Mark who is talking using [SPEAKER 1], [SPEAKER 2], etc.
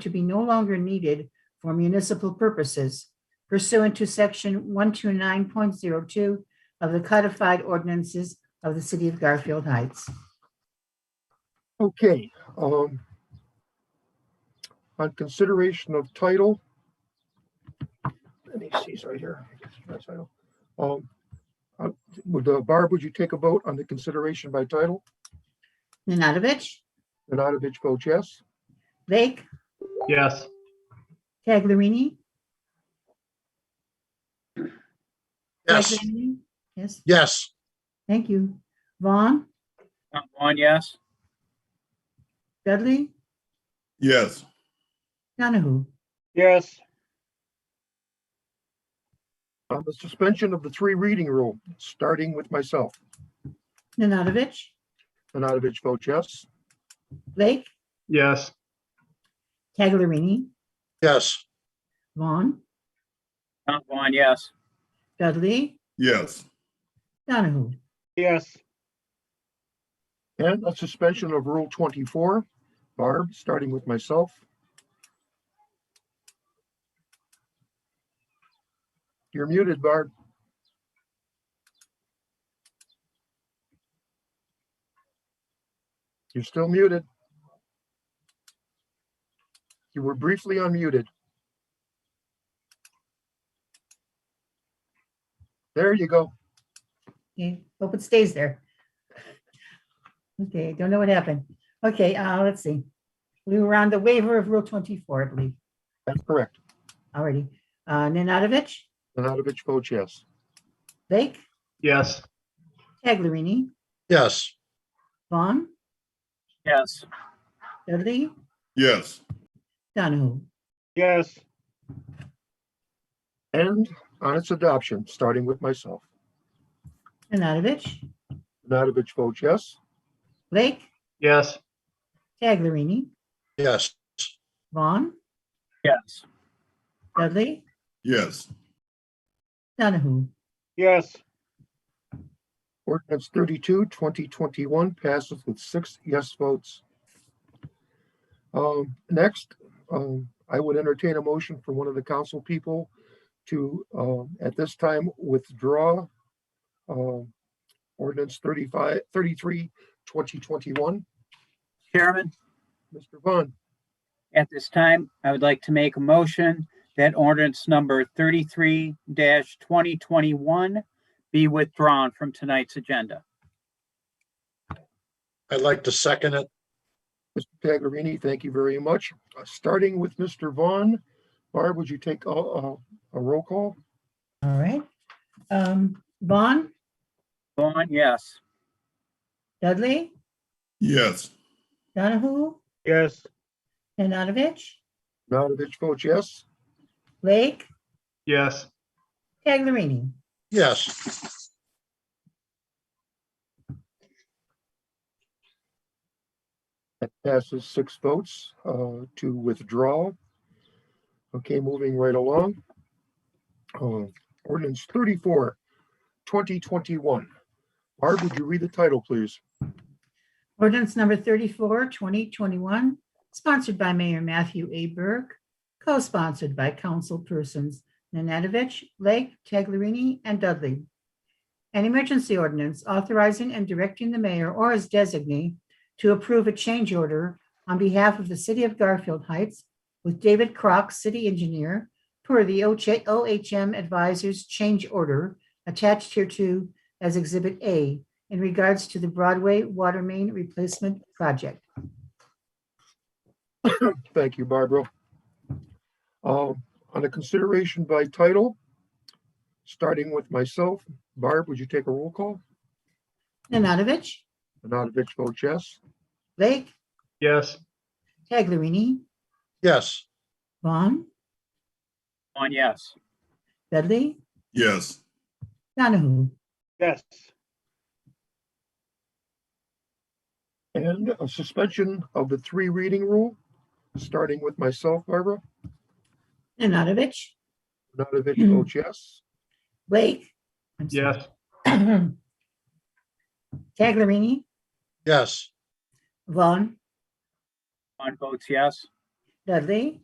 [SPEAKER 1] to be no longer needed for municipal purposes pursuant to section 129.02 of the codified ordinances of the city of Garfield Heights.
[SPEAKER 2] Okay, um, on consideration of title. Let me see, it's right here. I guess it's my title. Um, uh, would, uh, Barb, would you take a vote on the consideration by title?
[SPEAKER 1] Nanadovich,
[SPEAKER 2] Nanadovich votes yes.
[SPEAKER 1] Blake,
[SPEAKER 3] Yes,
[SPEAKER 1] Taglerini.
[SPEAKER 4] Yes,
[SPEAKER 1] Taglerini? Yes,
[SPEAKER 4] yes,
[SPEAKER 1] thank you. Vaughn,
[SPEAKER 5] Count Vaughn, yes.
[SPEAKER 1] Dudley,
[SPEAKER 6] Yes,
[SPEAKER 1] Donahue.
[SPEAKER 5] Yes.
[SPEAKER 2] On the suspension of the three reading rule, starting with myself.
[SPEAKER 1] Nanadovich,
[SPEAKER 2] Nanadovich votes yes.
[SPEAKER 1] Blake,
[SPEAKER 3] yes,
[SPEAKER 1] Taglerini,
[SPEAKER 4] yes,
[SPEAKER 1] Vaughn,
[SPEAKER 5] Count Vaughn, yes.
[SPEAKER 1] Dudley,
[SPEAKER 6] yes,
[SPEAKER 1] Donahue.
[SPEAKER 5] Yes.
[SPEAKER 2] And a suspension of Rule 24. Barb, starting with myself. You're muted, Barb. You're still muted. You were briefly unmuted. There you go.
[SPEAKER 1] Okay, hope it stays there. Okay, don't know what happened. Okay, uh, let's see. We were on the waiver of Rule 24, I believe,
[SPEAKER 2] That's correct.
[SPEAKER 1] already. Uh, Nanadovich,
[SPEAKER 2] Nanadovich votes yes.
[SPEAKER 1] Blake,
[SPEAKER 3] yes,
[SPEAKER 1] Taglerini,
[SPEAKER 4] yes,
[SPEAKER 1] Vaughn,
[SPEAKER 5] Yes.
[SPEAKER 1] Dudley,
[SPEAKER 6] yes,
[SPEAKER 1] Donahue.
[SPEAKER 5] Yes.
[SPEAKER 2] And on its adoption, starting with myself.
[SPEAKER 1] Nanadovich,
[SPEAKER 2] Nanadovich votes yes.
[SPEAKER 1] Blake,
[SPEAKER 3] yes,
[SPEAKER 1] Taglerini,
[SPEAKER 4] yes,
[SPEAKER 1] Vaughn,
[SPEAKER 5] Yes.
[SPEAKER 1] Dudley,
[SPEAKER 6] yes,
[SPEAKER 1] Donahue.
[SPEAKER 5] Yes.
[SPEAKER 2] Ordinance 32, 2021 passes with six yes votes. Um, Next, um, I would entertain a motion from one of the council people to, um, at this time, withdraw um, ordinance 35, 33, 2021.
[SPEAKER 5] Chairman,
[SPEAKER 2] Mr. Vaughn,
[SPEAKER 5] at this time, I would like to make a motion that ordinance number thirty-three twenty twenty-one be withdrawn from tonight's agenda.
[SPEAKER 4] I'd like to second it,
[SPEAKER 2] Mr. Taglerini, thank you very much. Uh, Starting with Mr. Vaughn, Barb, would you take a a- a roll call?
[SPEAKER 1] All right. Um, Vaughn,
[SPEAKER 5] Vaughn, yes.
[SPEAKER 1] Dudley,
[SPEAKER 6] yes,
[SPEAKER 1] Donahue,
[SPEAKER 5] Yes.
[SPEAKER 1] Nanadovich,
[SPEAKER 2] Nanadovich votes yes.
[SPEAKER 1] Blake,
[SPEAKER 3] yes,
[SPEAKER 1] Taglerini.
[SPEAKER 4] yes,
[SPEAKER 2] That passes six votes uh, to withdraw. Okay, moving right along. Uh, Ordinance 34, 2021. Barb, would you read the title, please?
[SPEAKER 1] Ordinance number 34, 2021, sponsored by Mayor Matthew A. Burke, co-sponsored by councilpersons Nanadovich, Blake, Taglerini, and Dudley. An emergency ordinance authorizing and directing the mayor or his designee to approve a change order on behalf of the city of Garfield Heights with David Crock, city engineer, per the OJ OHM Advisors Change Order attached hereto as Exhibit A in regards to the Broadway Water Main Replacement Project.
[SPEAKER 2] Thank you, Barbara. Um, On a consideration by title, starting with myself, Barb, would you take a roll call?
[SPEAKER 1] Nanadovich,
[SPEAKER 2] Nanadovich votes yes.
[SPEAKER 1] Blake,
[SPEAKER 3] yes,
[SPEAKER 1] Taglerini,
[SPEAKER 4] yes,
[SPEAKER 1] Vaughn,
[SPEAKER 5] Vaughn, yes.
[SPEAKER 1] Dudley,
[SPEAKER 6] yes,
[SPEAKER 1] Donahue.
[SPEAKER 5] Yes.
[SPEAKER 2] And a suspension of the three reading rule, starting with myself, Barbara.
[SPEAKER 1] Nanadovich,
[SPEAKER 2] Nanadovich votes yes.
[SPEAKER 1] Blake. I'm sorry.
[SPEAKER 3] yes,
[SPEAKER 1] Taglerini,
[SPEAKER 4] yes,
[SPEAKER 1] Vaughn,
[SPEAKER 5] Vaughn votes yes.
[SPEAKER 1] Dudley?